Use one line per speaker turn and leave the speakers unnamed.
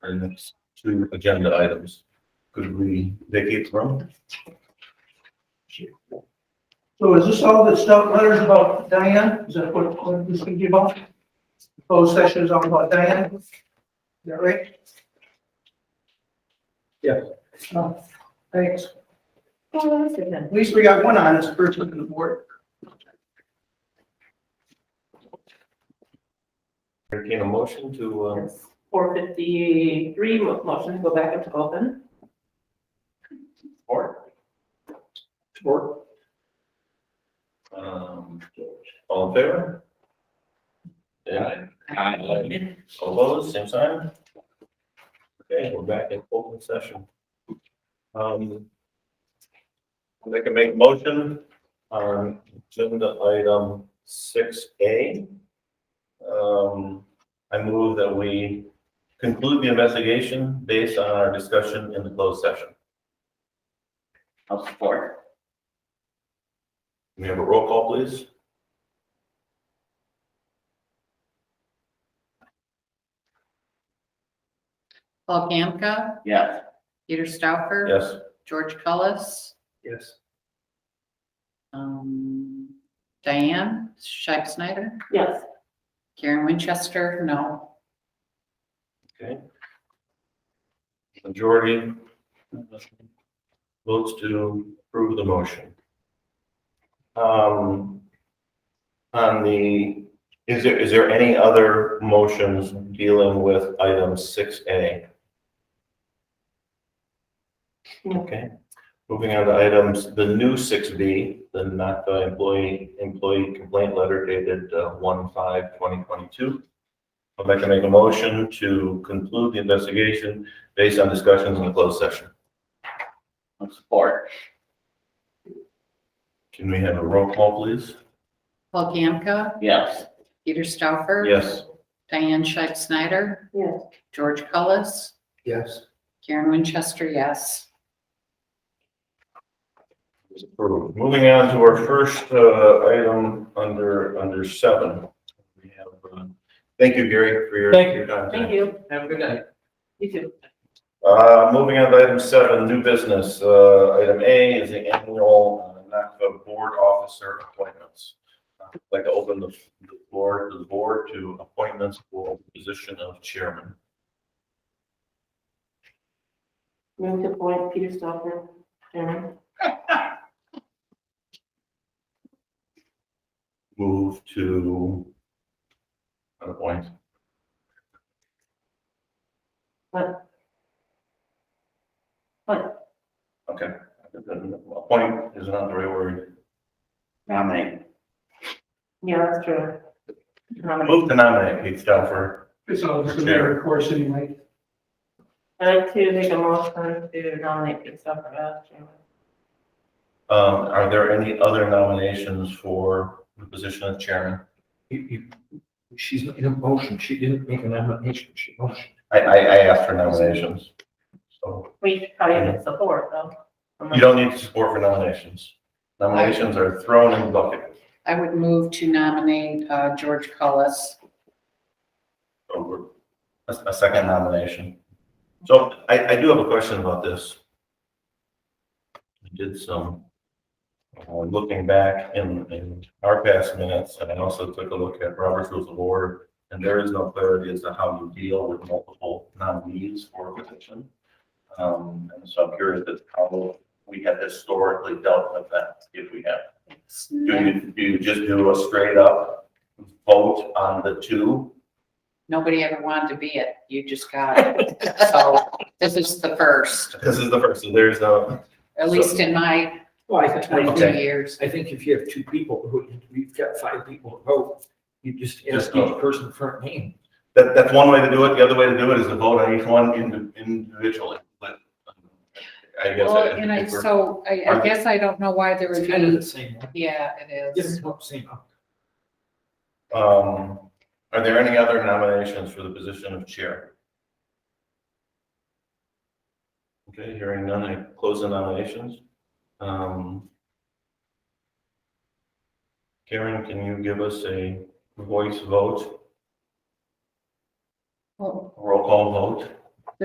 our next two agenda items. Could we vacate the room?
So is this all the stuff, letters about Diane? Is that what, what this is gonna be about? Closed session is all about Diane? Is that right?
Yeah.
Oh, thanks.
Well, that's good then.
At least we got one honest person on the board.
Entertain a motion to, um,
Four fifty-three, motion to go back into open.
support. Support. Um, all in favor? Yeah, Aye. all opposed, same sign? Okay, we're back in open session. Um. They can make a motion on agenda item six A. Um, I move that we conclude the investigation based on our discussion in the closed session.
I'll support.
Can we have a roll call, please?
Paul Gamka,
Yes.
Peter Stauffer.
Yes.
George Cullis,
Yes.
um, Diane Scheib Snyder,
Yes,
Karen Winchester, no.
Majority votes to approve the motion. Um, on the, is there, is there any other motions dealing with item six A? Okay, moving on to items, the new six B, the not the employee, employee complaint letter dated uh, one five twenty twenty-two. I'd like to make a motion to conclude the investigation based on discussions in the closed session.
I'll support.
Can we have a roll call, please?
Paul Gamka,
Yes.
Peter Stauffer.
Yes.
Diane Scheib Snyder,
yes.
George Cullis,
Yes.
Karen Winchester, yes.
Moving on to our first uh, item under, under seven. We have, uh, Thank you, Gary, for your. Thank you.
Thank you.
Have a good night.
You too.
Uh, moving on to item seven, new business. Uh, item A is the annual uh, NACFA board officer appointments. Uh, I'd Like to open the the floor to the board to appointments for position of chairman.
Move to appoint Peter Stauffer, chairman.
move to another point.
What? What?
Okay, appoint is not the right word.
Nominate.
Yeah, that's true. Um,
Move to nominate Pete Stauffer.
It's all just a matter of course anyway.
I'd like to make a motion to nominate Peter Stauffer as chairman.
Um, are there any other nominations for the position of chairman?
You, you, she's in a motion, she didn't make an nomination, she motioned.
I, I, I asked for nominations. So
We should probably get support though.
you don't need support for nominations. Nominations are thrown in the bucket.
I would move to nominate, uh, George Cullis.
Over. A, a second nomination. So I, I do have a question about this. I did some, uh, looking back in, in our past minutes, and I also took a look at Robert's Rules of Order, and there is no clarity as to how you deal with multiple nominees for a position. Um, and so I'm curious as to how we have historically dealt with that, if we have. Do you, do you just do a straight up vote on the two
Nobody ever wanted to be it, you just got it. So this is the first,
This is the first, so there's a,
at least in my
Well, I
twenty-three years.
I think if you have two people, who, you've got five people to vote, you just ask
Just vote.
each person for a name.
that, that's one way to do it, the other way to do it is to vote on each one indi- individually, but. um, I guess.
Well,
I-
and I,
if we're-
so I, I guess I don't know why there would
It's kind of the
be,
same one.
yeah, it
It's
is.
the same one.
Um, are there any other nominations for the position of chair? Okay, hearing none, I close the nominations. Um. Karen, can you give us a voice vote,
Well,
roll call vote?